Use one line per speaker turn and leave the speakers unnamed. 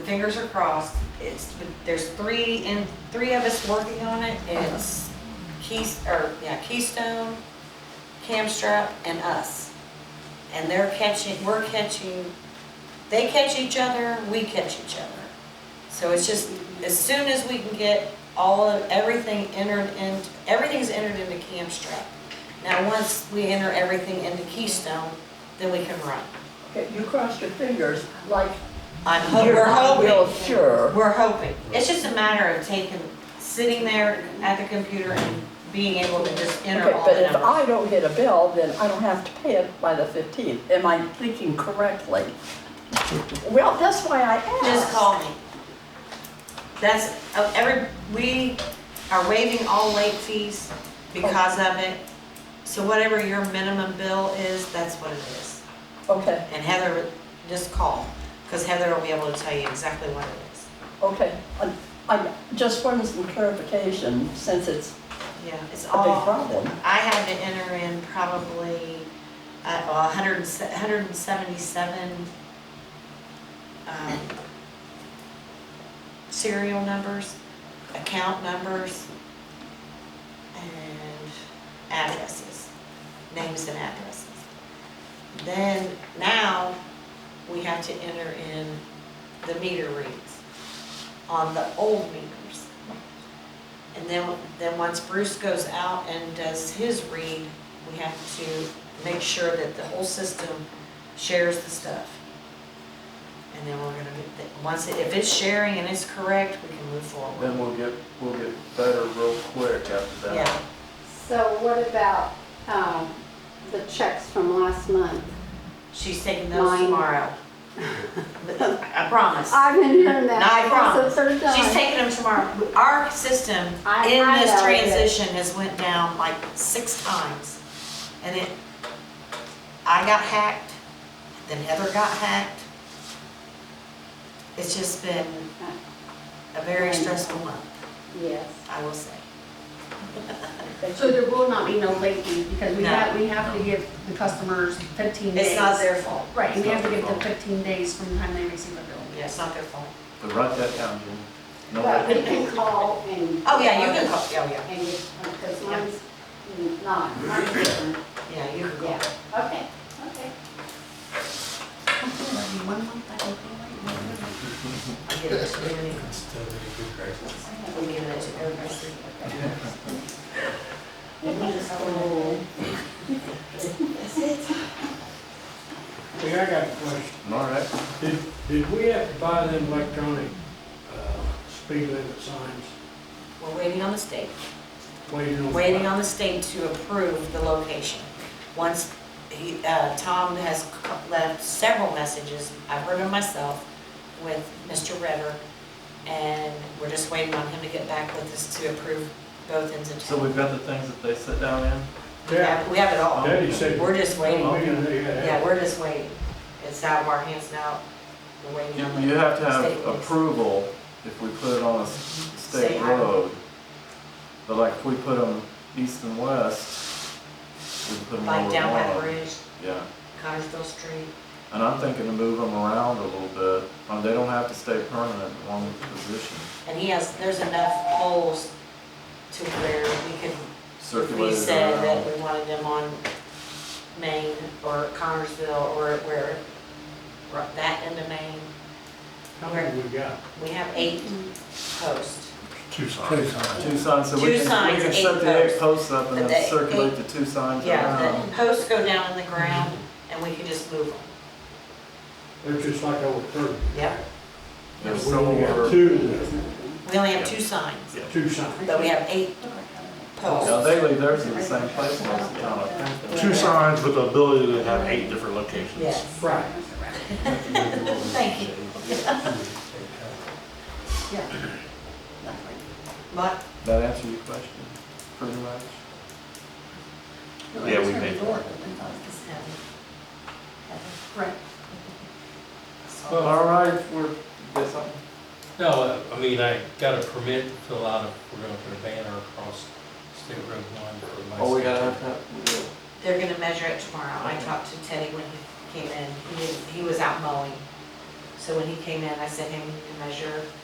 fingers are crossed, it's, there's three, and three of us working on it, it's Keys, or, yeah, Keystone, Camstrap, and us. And they're catching, we're catching, they catch each other, we catch each other. So it's just, as soon as we can get all of, everything entered in, everything's entered into Camstrap. Now, once we enter everything into Keystone, then we can run.
Okay, You crossed your fingers like
I'm, ho-
you're
we're
not
hoping.
real sure.
We're hoping. It's just a matter of taking, sitting there at the computer and being able to just enter
Okay,
all
but
the
if I
numbers.
don't get a bill, then I don't have to pay it by the 15th. Am I thinking correctly? Well, that's why I asked.
Just call me. That's, uh, every, we are waiving all late fees because of it. So whatever your minimum bill is, that's what it is.
Okay,
And Heather, just call, because Heather will be able to tell you exactly what it is.
okay. I- I just wanted some clarification since it's
Yeah, it's
a big
all.
problem.
I had to enter in probably, uh, well, hundred and se- hundred and seventy-seven, um, serial numbers, account numbers, and addresses, names and addresses. Then, now, we have to enter in the meter reads on the old meters. And then, then once Bruce goes out and does his read, we have to make sure that the whole system shares the stuff. And then we're gonna, get the- once, it- if it's sharing and it's correct, we can move forward.
Then we'll get, we'll get better real quick after that.
Yeah,
So what about um, the checks from last month?
she's taking those
Mine.
tomorrow. I promise.
I've been hearing
No, I
that.
promise.
That's the third
She's
time.
taking them tomorrow. Our system
I-
in
I
this
know it.
transition has went down like six times. And it, I got hacked, then Heather got hacked. It's just been a very stressful month,
Yes.
I will say.
So there will not be no late fees because we
No.
have, we have to give the customers fifteen days.
It's not their fault.
Right, we have to give them
It's not their
fifteen days from the time they receive a bill.
Yeah, it's not their fault.
But write that down, Jim. No,
But we
that-
can call and.
Oh, yeah, you can call, oh, yeah,
And, because mine's not, mine's different.
yeah, you can go.
Yeah, okay, okay.
One month, I don't know.
I'll give it to you. We'll give it to everybody.
Hey, I got a question.
All right.
Did, did we have to buy them electronic, uh, speed limit signs?
We're waiting on the state.
Waiting on.
waiting on the state to approve the location. Once he, uh, Tom has c- left several messages, I've heard them myself, with Mr. Ritter, and we're just waiting on him to get back with us to approve both ends of
So
town.
we've got the things that they sit down in?
We
Yeah,
have- we have it all.
Daddy said.
We're just
Oh,
waiting.
yeah, they had-
Yeah, we're just waiting. It's out of our hands now. We're waiting
You,
on the.
you have to
state
have
police.
approval if we put it on a s-
State
state
highway.
road. But like if we put them east and west, we can put them where
Like
we
down
want
by
'em.
the bridge,
Yeah,
Connersville Street.
and I'm thinking to move them around a little bit. Um, they don't have to stay permanent in one position.
And he has, there's enough poles to where we can We
Circulate it
said that
around.
we wanted them on Maine or Connersville or where, right- that end of Maine.
How many we got?
We have eight posts.
Two signs.
Two signs, so we
Two
can,
signs,
we can
eight
set the eight
posts.
posts up
But
and
the
then circulate
eight-
the two signs
Yeah,
around.
the posts go down in the ground and we can just move them.
They're just like over thirty.
Yep.
We
There's
only got
somewhere-
two, that-
We only have two signs,
two signs.
but we have eight
Yeah,
posts.
they leave theirs in the same place most of the time, I think.
Two signs with the ability to have eight different locations.
Yes.
Right.
Thank you. But
That answer your question, pretty much?
Yeah, we paid.
Right.
All right, we're, there's something.
No, uh, I I mean, I got a permit to fill out, a- we're gonna put a banner across State Road one for my.
Oh, we gotta have that, we do.
they're gonna measure it tomorrow. I talked to Teddy when he came in. He, was- he was out mowing. So when he came in, I sent him a measure